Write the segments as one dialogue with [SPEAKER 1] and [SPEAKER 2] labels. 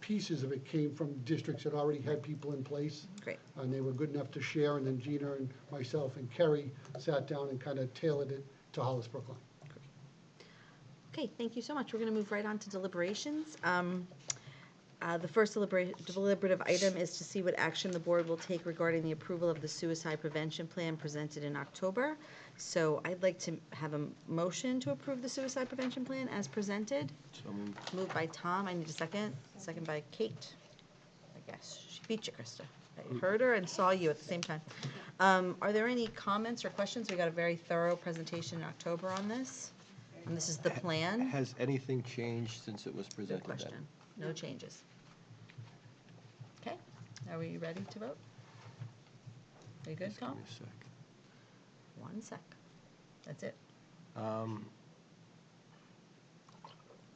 [SPEAKER 1] pieces of it came from districts that already had people in place.
[SPEAKER 2] Great.
[SPEAKER 1] And they were good enough to share, and then Gina and myself and Kerry sat down and kind of tailored it to Hollis Brookline.
[SPEAKER 2] Okay, thank you so much. We're going to move right on to deliberations. Um, uh, The first delibera- deliberative item is to see what action the board will take regarding the approval of the suicide prevention plan presented in October. So I'd like to have a m- motion to approve the suicide prevention plan as presented. Moved by Tom, I need a second. Second by Kate. I guess she beat you, Krista. I heard her and saw you at the same time. Um, Are there any comments or questions? We got a very thorough presentation in October on this. And this is the plan.
[SPEAKER 3] Has anything changed since it was presented?
[SPEAKER 2] Good
[SPEAKER 3] then?
[SPEAKER 2] question. No changes. Okay, are we ready to vote? Are you good,
[SPEAKER 3] Just give
[SPEAKER 2] Tom?
[SPEAKER 3] me a sec.
[SPEAKER 2] One sec. That's it.
[SPEAKER 3] Um,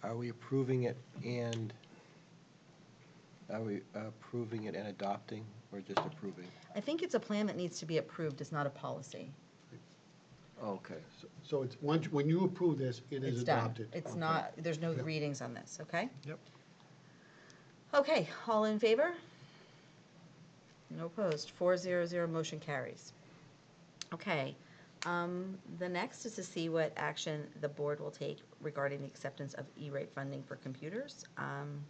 [SPEAKER 3] Are we approving it and, are we approving it and adopting, or just approving?
[SPEAKER 2] I think it's a plan that needs to be approved. It's not a policy.
[SPEAKER 3] Okay, so
[SPEAKER 1] So it's, once, when you approve this, it is
[SPEAKER 2] It's done.
[SPEAKER 1] adopted.
[SPEAKER 2] It's not, there's no readings on this, okay?
[SPEAKER 3] Yep.
[SPEAKER 2] Okay, all in favor? No opposed, four zero zero, motion carries. Okay, um, the next is to see what action the board will take regarding the acceptance of E-rate funding for computers. Um,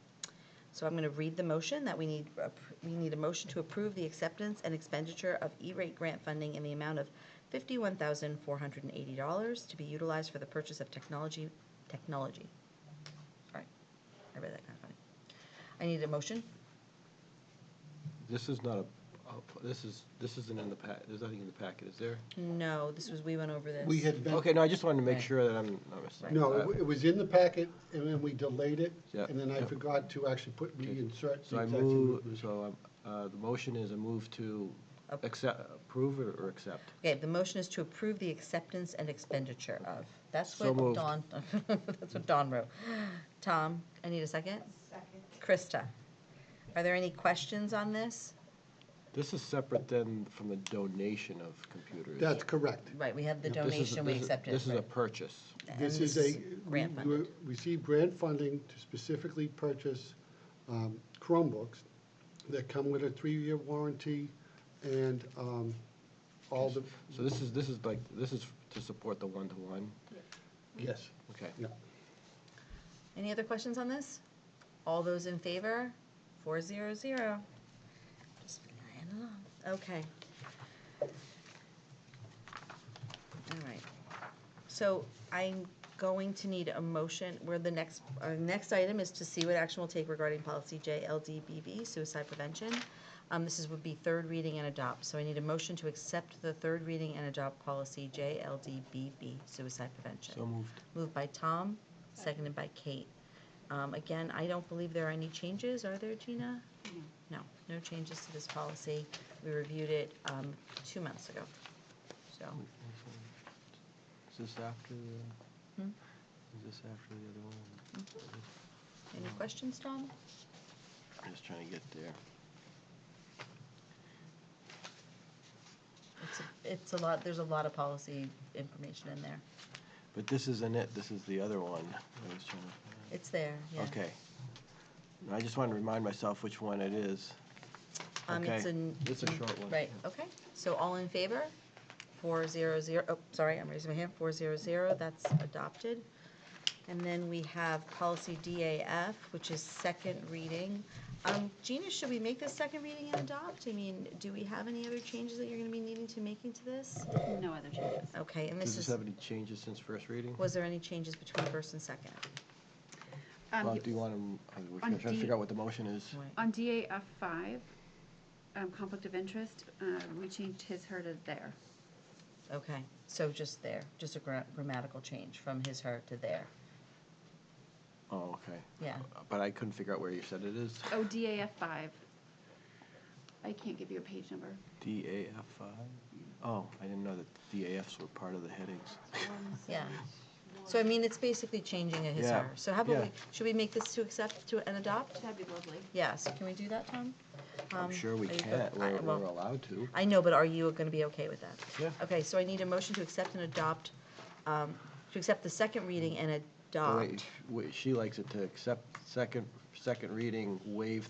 [SPEAKER 2] so I'm gonna read the motion that we need, appro- we need a motion to approve the acceptance and expenditure of E-rate grant funding in the amount of fifty-one thousand four hundred and eighty dollars to be utilized for the purchase of technology, technology. Sorry, I read that kind of funny. I need a motion.
[SPEAKER 3] this is not a, a- this is, this isn't in the pa, there's nothing in the packet, is there?
[SPEAKER 2] No, this was, we went over this.
[SPEAKER 1] We had been.
[SPEAKER 3] Okay, no, I just wanted to make
[SPEAKER 2] Right.
[SPEAKER 3] sure that I'm not missing.
[SPEAKER 1] No,
[SPEAKER 3] Uh,
[SPEAKER 1] it wa- it was in the packet, and then we delayed it,
[SPEAKER 3] Yeah,
[SPEAKER 1] and then I
[SPEAKER 3] yeah.
[SPEAKER 1] forgot to actually put,
[SPEAKER 3] Okay.
[SPEAKER 1] reinsert.
[SPEAKER 3] So
[SPEAKER 1] the
[SPEAKER 3] I
[SPEAKER 1] exact same
[SPEAKER 3] move,
[SPEAKER 1] movement.
[SPEAKER 3] so I'm- uh, the motion is a move to
[SPEAKER 2] Up.
[SPEAKER 3] accept, approve or or accept?
[SPEAKER 2] Okay, the motion is to approve the acceptance and expenditure of. That's
[SPEAKER 3] So
[SPEAKER 2] what
[SPEAKER 3] moved.
[SPEAKER 2] Dawn, that's what Dawn wrote. Tom, I need a second? Krista, are there any questions on this?
[SPEAKER 3] This is separate then from the donation of computers?
[SPEAKER 1] That's correct.
[SPEAKER 2] Right, we have the
[SPEAKER 3] This is-
[SPEAKER 2] donation, we
[SPEAKER 3] this is-
[SPEAKER 2] accepted.
[SPEAKER 3] This is a
[SPEAKER 2] right.
[SPEAKER 3] purchase.
[SPEAKER 2] And
[SPEAKER 1] This is a, we
[SPEAKER 2] Grant
[SPEAKER 1] we
[SPEAKER 2] funded.
[SPEAKER 1] received grant funding to specifically purchase um, Chromebooks that come with a three-year warranty and um, all the,
[SPEAKER 3] So this is, this is like, this is to support the one-to-one?
[SPEAKER 1] yes,
[SPEAKER 3] Okay.
[SPEAKER 1] yeah.
[SPEAKER 2] Any other questions on this? All those in favor? Four zero zero. Just flying along. Okay. All right. So I'm going to need a motion, where the next, our next item is to see what action we'll take regarding policy JLDBB, suicide prevention. Um, this is, would be third reading and adopt, so I need a motion to accept the third reading and adopt policy JLDBB, suicide prevention.
[SPEAKER 3] So moved.
[SPEAKER 2] Moved by Tom, seconded by Kate. Um, Again, I don't believe there are any changes, are there, Gina? No, no changes to this policy. We reviewed it um, two months ago, so.
[SPEAKER 3] Is this after the,
[SPEAKER 2] Hmm?
[SPEAKER 3] is this after the other one?
[SPEAKER 2] Any questions, Tom?
[SPEAKER 3] I'm just trying to get there.
[SPEAKER 2] It's a- It's a lot, there's a lot of policy information in there.
[SPEAKER 3] But this isn't it, this is the other one. I was trying to find.
[SPEAKER 2] It's there, yeah.
[SPEAKER 3] Okay. No, I just wanted to remind myself which one it is.
[SPEAKER 2] Um,
[SPEAKER 3] Okay.
[SPEAKER 2] it's an-
[SPEAKER 3] It's a short one.
[SPEAKER 2] Right, okay. So all in favor? Four zero zero, oh, sorry, I'm raising my hand. Four zero zero, that's adopted. And then we have policy DAF, which is second reading. Um, Gina, should we make this second reading and adopt? I mean, do we have any other changes that you're gonna be needing to making to this?
[SPEAKER 4] No other changes.
[SPEAKER 2] Okay, and
[SPEAKER 3] Does
[SPEAKER 2] this
[SPEAKER 3] this
[SPEAKER 2] is,
[SPEAKER 3] have any changes since first reading?
[SPEAKER 2] was there any changes between first and second?
[SPEAKER 4] Um,
[SPEAKER 3] Well,
[SPEAKER 4] you-
[SPEAKER 3] do you want to, we're
[SPEAKER 4] On
[SPEAKER 3] trying to
[SPEAKER 4] D-
[SPEAKER 3] figure out what the motion is.
[SPEAKER 2] Right.
[SPEAKER 4] On DAF five, um, conflict of interest, uh, we changed his, her to there.
[SPEAKER 2] Okay, so just there, just a gra- grammatical change from his, her to there.
[SPEAKER 3] Oh, okay.
[SPEAKER 2] Yeah.
[SPEAKER 3] But I couldn't figure out where you said it is.
[SPEAKER 4] Oh, DAF five. I can't give you a page number.
[SPEAKER 3] DAFI? Oh, I didn't know that DAFs were part of the headings.
[SPEAKER 2] Yeah. So I mean, it's basically changing a his
[SPEAKER 3] Yeah.
[SPEAKER 2] or. So how about we,
[SPEAKER 3] Yeah.
[SPEAKER 2] should we make this to accept to and adopt?
[SPEAKER 4] That'd be lovely.
[SPEAKER 2] Yeah, so can we do that, Tom?
[SPEAKER 3] I'm
[SPEAKER 2] Um,
[SPEAKER 3] sure we
[SPEAKER 2] are you
[SPEAKER 3] can,
[SPEAKER 2] go- I-
[SPEAKER 3] we're, we're
[SPEAKER 2] well,
[SPEAKER 3] allowed to.
[SPEAKER 2] I know, but are you gonna be okay with that?
[SPEAKER 3] Yeah.
[SPEAKER 2] Okay, so I need a motion to accept and adopt, um, to accept the second reading and
[SPEAKER 3] Oh, wait,
[SPEAKER 2] adopt.
[SPEAKER 3] sh- wait, She likes it to accept second, second reading, waive